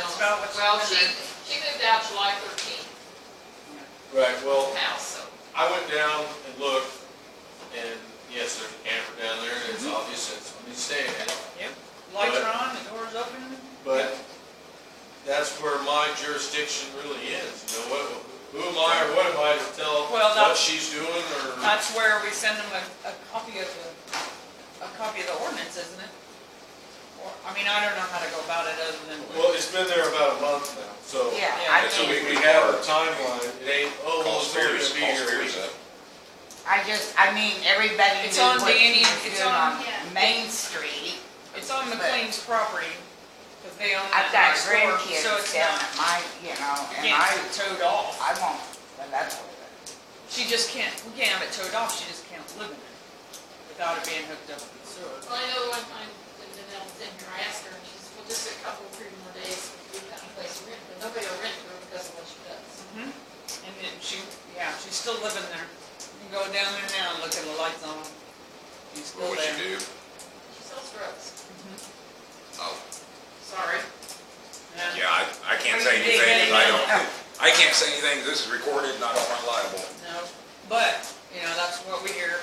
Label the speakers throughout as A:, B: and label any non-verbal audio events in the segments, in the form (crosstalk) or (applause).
A: Well, she, she moved out July thirteenth,
B: Right, well,
A: house, so.
B: I went down and looked, and yes, there's a camper down there, and it's
C: Mm-hmm.
B: obvious that somebody's staying in it.
C: Lights are on, the door's open,
B: But that's where my jurisdiction really is, you know, what, who am I or what am I to tell
C: Well,
B: what
C: that-
B: she's doing or?
C: that's where we send them a, a copy of the, a copy of the ordinance, isn't it? Or, I mean, I don't know how to go about it other than.
B: Well, it's been there about a month now, so.
D: Yeah,
C: Yeah,
D: I
B: And so
D: mean,
B: we, we have a timeline, it ain't, oh, well,
E: Call
B: it's gonna
E: Spears,
B: be
E: call
B: here.
E: Spears up.
D: I just, I mean, everybody
C: It's
D: knew
C: on
D: what
C: Danny-
D: she was
C: it's
D: doing
C: on-
D: on
F: yeah.
D: Main Street.
C: It's on McLean's property, because they own
D: I've
C: that
D: got
C: next door, so it's
D: grandkids down
C: not,
D: at my, you know,
C: you can't
D: and I,
C: have it towed off.
D: I won't, but that's,
C: She just can't, we can't have it towed off, she just can't live in it without it being hooked up with sewer.
A: Well, I know one time when Danelle was in here, I asked her, and she says, well, just a couple, three more days, we kind of place to rent, but nobody will rent her because of what she does.
D: Mm-hmm.
C: Mhm. And then she, yeah, she's still living there. You can go down there now and look at the lights on. She's
E: What
C: still
E: would
C: there.
E: you do?
A: She sells drugs,
E: Oh,
A: sorry.
C: Yeah.
E: yeah, I, I can't say
C: Are you
E: anything, 'cause I
C: digging in?
E: don't, I can't say anything, this is recorded, and I don't want liable.
C: No, but, you know, that's what we hear.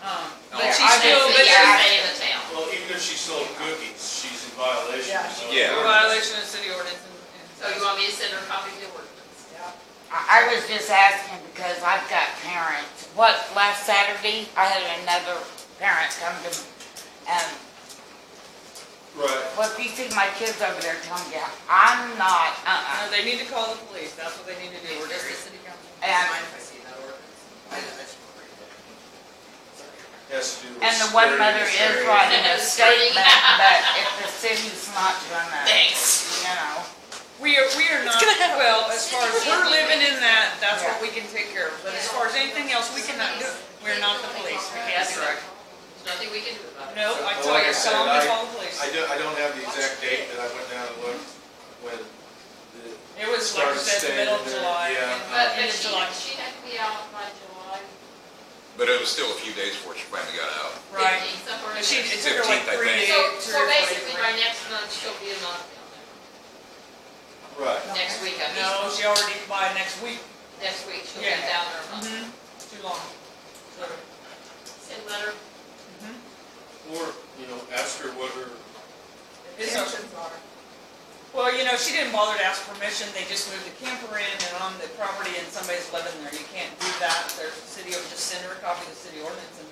C: Um,
E: No,
C: But she's
E: I
C: still,
A: But
C: but
A: you're
C: she's
A: staying in the town.
B: Well, even if she sold cookies, she's in violation,
C: Yeah.
B: so.
E: Yeah.
C: in violation of city ordinance and. and
A: So you want me to send her a copy of the ordinance?
C: Yeah.
D: I, I was just asking because I've got parents. What, last Saturday, I had another parent come to, me, and
B: Right,
D: well, if you see my kids over there, tell them, yeah, I'm not,
C: No,
D: uh-uh.
C: they need to call the police, that's what they need to do, we're just the city council.
D: And-
B: has to do with.
D: And the one
B: security
D: mother
B: and
D: is
B: training.
D: writing
C: (laughs)
D: a
A: Security.
D: statement, but if the city's not gonna,
A: Thanks.
D: you know.
C: We are, we are not, well, as far as we're living in that, that's what we can take care of, but as far as anything else, we cannot do, it. we're not the police, we can't direct.
A: Nothing we can do about it.
C: No, I
B: Well,
C: tell
B: like I
C: you,
B: said,
C: tell them
B: I-
C: to call the police.
B: I don't, I don't have the exact date, but I went down and looked when the.
C: It was like I
B: started
C: said, the
B: staying
C: middle of
B: there. Yeah.
C: July.
B: uh,
A: But,
C: Uh,
A: but
C: End of
A: she,
C: July.
A: she had to be out by July
E: But it was still a few days before she finally got out.
C: Right.
A: fifteenth, somewhere in
C: But she,
A: there.
C: it took her like
E: 15th, I
C: three
E: think.
C: days.
A: So,
C: three
A: so
C: or four days.
A: basically, by next month, she'll be a month down there.
B: Right.
A: Next week, I mean,
C: No, she already, by next week.
A: next week, she'll be
C: Yeah.
A: down there a month.
C: Mm-hmm. Too long. So,
A: Send letter,
C: mhm.
B: Or, you know, ask her what her,
C: It's a- Well, you know, she didn't bother to ask permission, they just moved the camper in and on the property and somebody's living there, you can't do that, there's a city, or just send her a copy of the city ordinance and,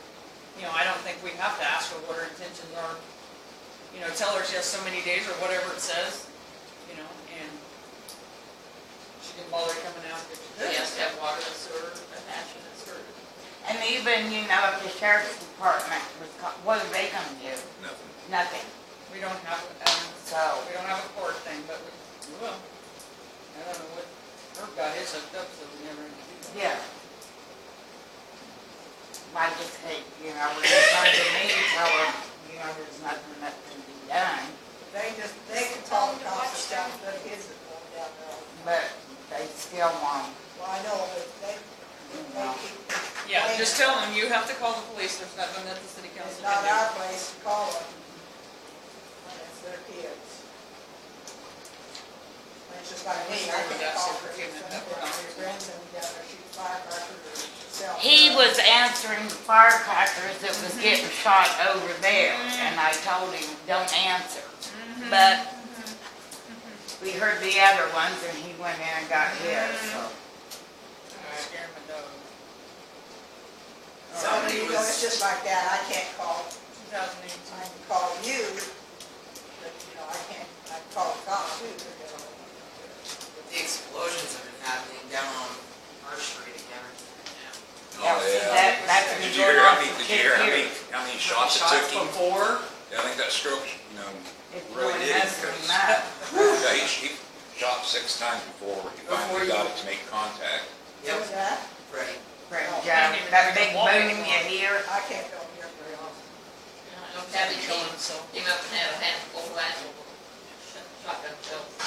C: you know, I don't think we have to ask her what her intentions are, you know, tell her she has so many days or whatever it says, you know, and she didn't bother coming out if she
A: she
C: could.
A: has to have water and sewer, a passion and sewer.
D: And even, you know, if the sheriff's department was, co- what are they gonna do?
E: Nothing.
D: Nothing,
C: We don't have, um,
D: so.
C: we don't have a court thing, but we, we will. I don't know what, her guy is hooked up, so we never.
D: Yeah. I just hate, you know, when it's time to meet, tell them, you know, there's nothing that can be done,
G: They just, they can call the council down, but his is going down there.
D: but they still won't.
G: Well, I know, but they, they keep,
C: Yeah, just tell them, you have to call the police, there's nothing that the city
G: it's
C: council
G: not
C: can do.
G: our place to call them. When it's their kids. It's just like me, I can call for kids, and your grandson down there shooting firecrackers or selling.
D: He was answering firecrackers that was getting
C: Mm-hmm.
D: shot over there, and I told him, don't answer.
C: Mm-hmm.
D: But we heard the other ones, and he went in and got his, so.
C: Mm-hmm. Scare my dog.
G: So, you know, it's just like that, I can't call,
C: Two thousand
G: I
C: eighteen.
G: can call you, but, you know, I can't, I can call the cops too, they're gonna.
H: With the explosions that are happening down on our street again.
D: That was-
E: Oh, Yeah.
D: that- that's been
E: Did you
D: going
E: hear
D: on
E: how many,
D: for
E: did you hear how
D: 10
E: many,
D: years.
E: how many shots it took him?
H: Before?
E: Yeah, I think that stroke, you know,
D: It's
E: Really
D: going
E: did.
D: up and up.
E: yeah, he, he shot six times before he
H: Before you-
E: finally got it to make contact.
G: Who's that?
H: Right.
D: Right,
G: Oh, I
D: Joe,
C: didn't even
D: that
C: know you
D: big
C: could walk
D: boom
C: anymore.
D: you hear,
G: I can't go here very often.
A: And I know Tabby came,
C: so.
A: came up and had a handful of that. Shotgun shells.